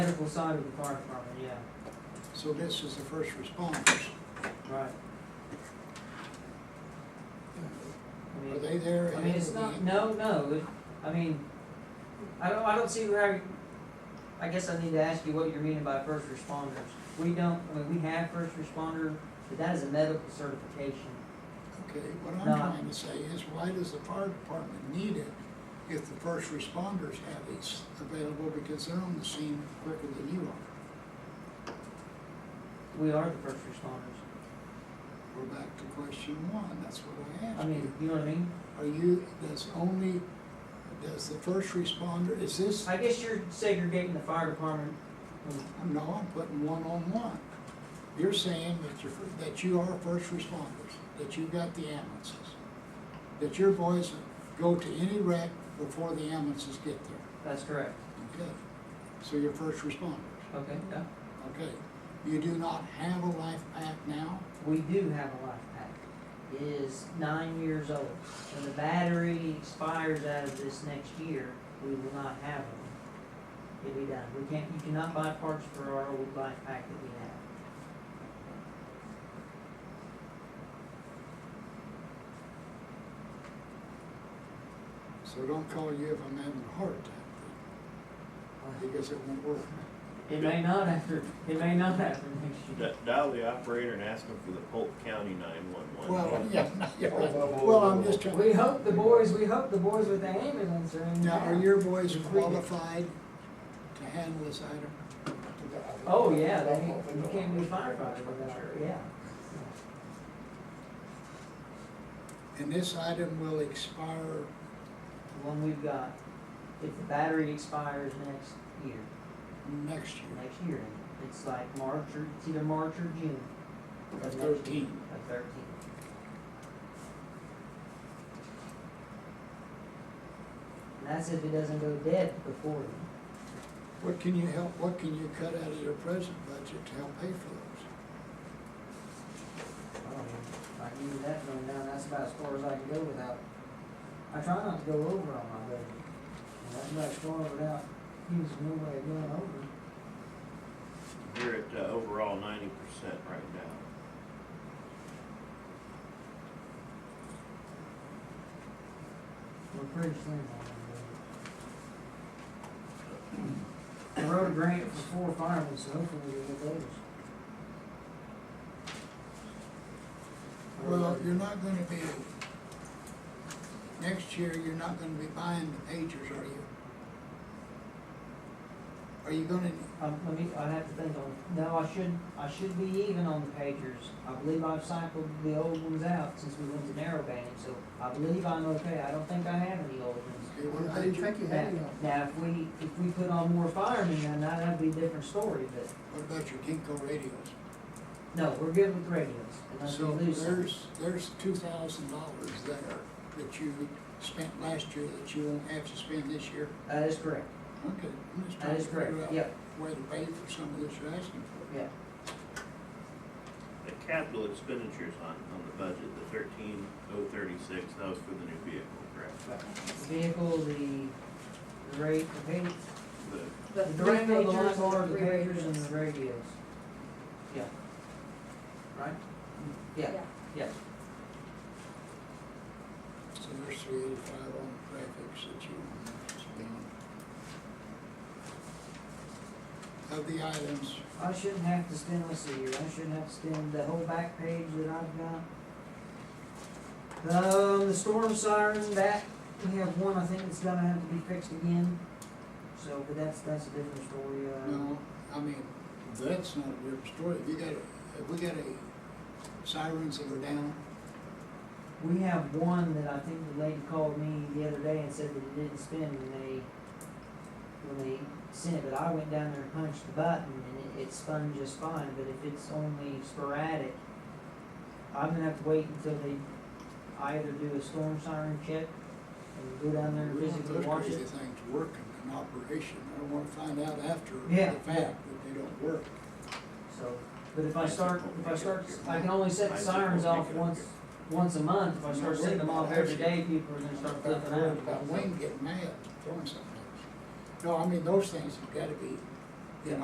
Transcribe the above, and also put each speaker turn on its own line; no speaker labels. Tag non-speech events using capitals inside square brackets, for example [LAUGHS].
municipal side of the fire department, yeah,
So this is the first responders.
right. I mean-
Are they there?
I mean,
ahead
it's
of the-
not, no, no, it- I mean, I don't, I don't see where, I guess I need to ask you what you're meaning by first responders. We don't, I mean, we have first responder, but that is a medical certification.
Okay, what I'm
No.
trying to say is why does the fire department need it if the first responders have these available because they're on the scene quicker than you are?
We are the first responders.
We're back to question one, that's what I
I
asked
mean,
you.
you know what I mean?
Are you, does only, does the first responder, is this,
I guess you're segregating the fire department. Mm, from-
no, I'm putting one on one. You're saying that you're, that you are first responders, that you've got the ambulances, that your boys go to any wreck before the ambulances get there.
That's correct.
Okay, so you're first responders,
Okay, yeah.
okay. You do not have a life pack now?
We do have a life pack. It is nine years old. When the battery expires out of this next year, we will not have one. It'll be done. We can't, you cannot buy parts for our old life pack that we have.
So don't call you if I'm having a heart attack, because it won't work.
It may not after, it may not after next year.
D- Dial the operator and ask them for the Polk County
[LAUGHS]
nine-one-one.
Well, yeah, yeah, right.
Whoa, whoa, whoa,
well, I'm
whoa.
just trying.
We hope the boys, we hope the boys with the ambulance are in.
Now, are
town.
your boys
Agreed.
qualified to handle this item?
Oh, yeah, they, you can't be firefighter without, yeah.
And this item will expire,
The one we've got, if the battery expires next year.
next year,
next year. It's like March or, it's either March or June.
the
of next year,
thirteen.
Of thirteen. And that's if it doesn't go dead before then.
What can you help, what can you cut out of your present budget to help pay for those?
I don't know. If I give you that rundown, that's about as far as I can go without, I try not to go over on my budget. And that's about as far without using no way of going over.
We're at uh, overall ninety percent right now.
We're pretty slim on that. budget. I wrote a grant for four firemen, so hopefully we'll get those. Uh,
Well, you're not gonna be, next year, you're not gonna be buying the pagers, are you? Are you gonna,
Um, let me, I have to think on, no, I should, I should be even on the pagers. I believe I've cycled the old ones out since we went to narrow banding, so I believe I'm okay. I don't think I have any old ones.
okay, what
I didn't
about,
think you had
Now,
any on.
now, if we, if we put on more firemen, then that'd be a different story, but
what about your Kinko radios?
no, we're good with radios. unless we
So
lose some.
there's, there's two thousand dollars there that you spent last year that you won't have to spend this year.
That is correct.
Okay, I'm just
That
trying to
is correct,
figure out
yep,
where to pay for some of this you're asking for.
yep.
The capital expenditures on, on the budget, the thirteen oh thirty-six, that was for the new vehicle, correct?
The Vehicle, the, the rate, the pay,
The,
the
three
direct the
majors,
lawnmower, the
three
pagers,
majors.
and the radios. Yeah. Right? Yeah,
Yeah.
yeah.
So there's three eighty-five on graphics that you want to spend. Of the items,
I shouldn't have to spend, let's see here, I shouldn't have to spend the whole back page that I've got. Um, the storm siren, that, we have one, I think it's gonna have to be fixed again. So, but that's, that's a different story, uh.
no, I mean, that's not a real story, you got, a- have we got a sirens that are down?
We have one that I think the lady called me the other day and said that it didn't spin when they, when they sent it, but I went down there and punched the button and it, it spun just fine, but if it's only sporadic, I'm gonna have to wait until they either do a storm siren check and go down there and
We want
physically
those
watch
crazy
it.
things working in operation, I don't wanna find out after
Yeah.
the fact that they don't work.
So, but if I start, if I start, I can only set the sirens off once, once a month, if I start setting them off every day, people are gonna start flipping out.
About Wayne getting mad, throwing something at us. No, I mean, those things have gotta be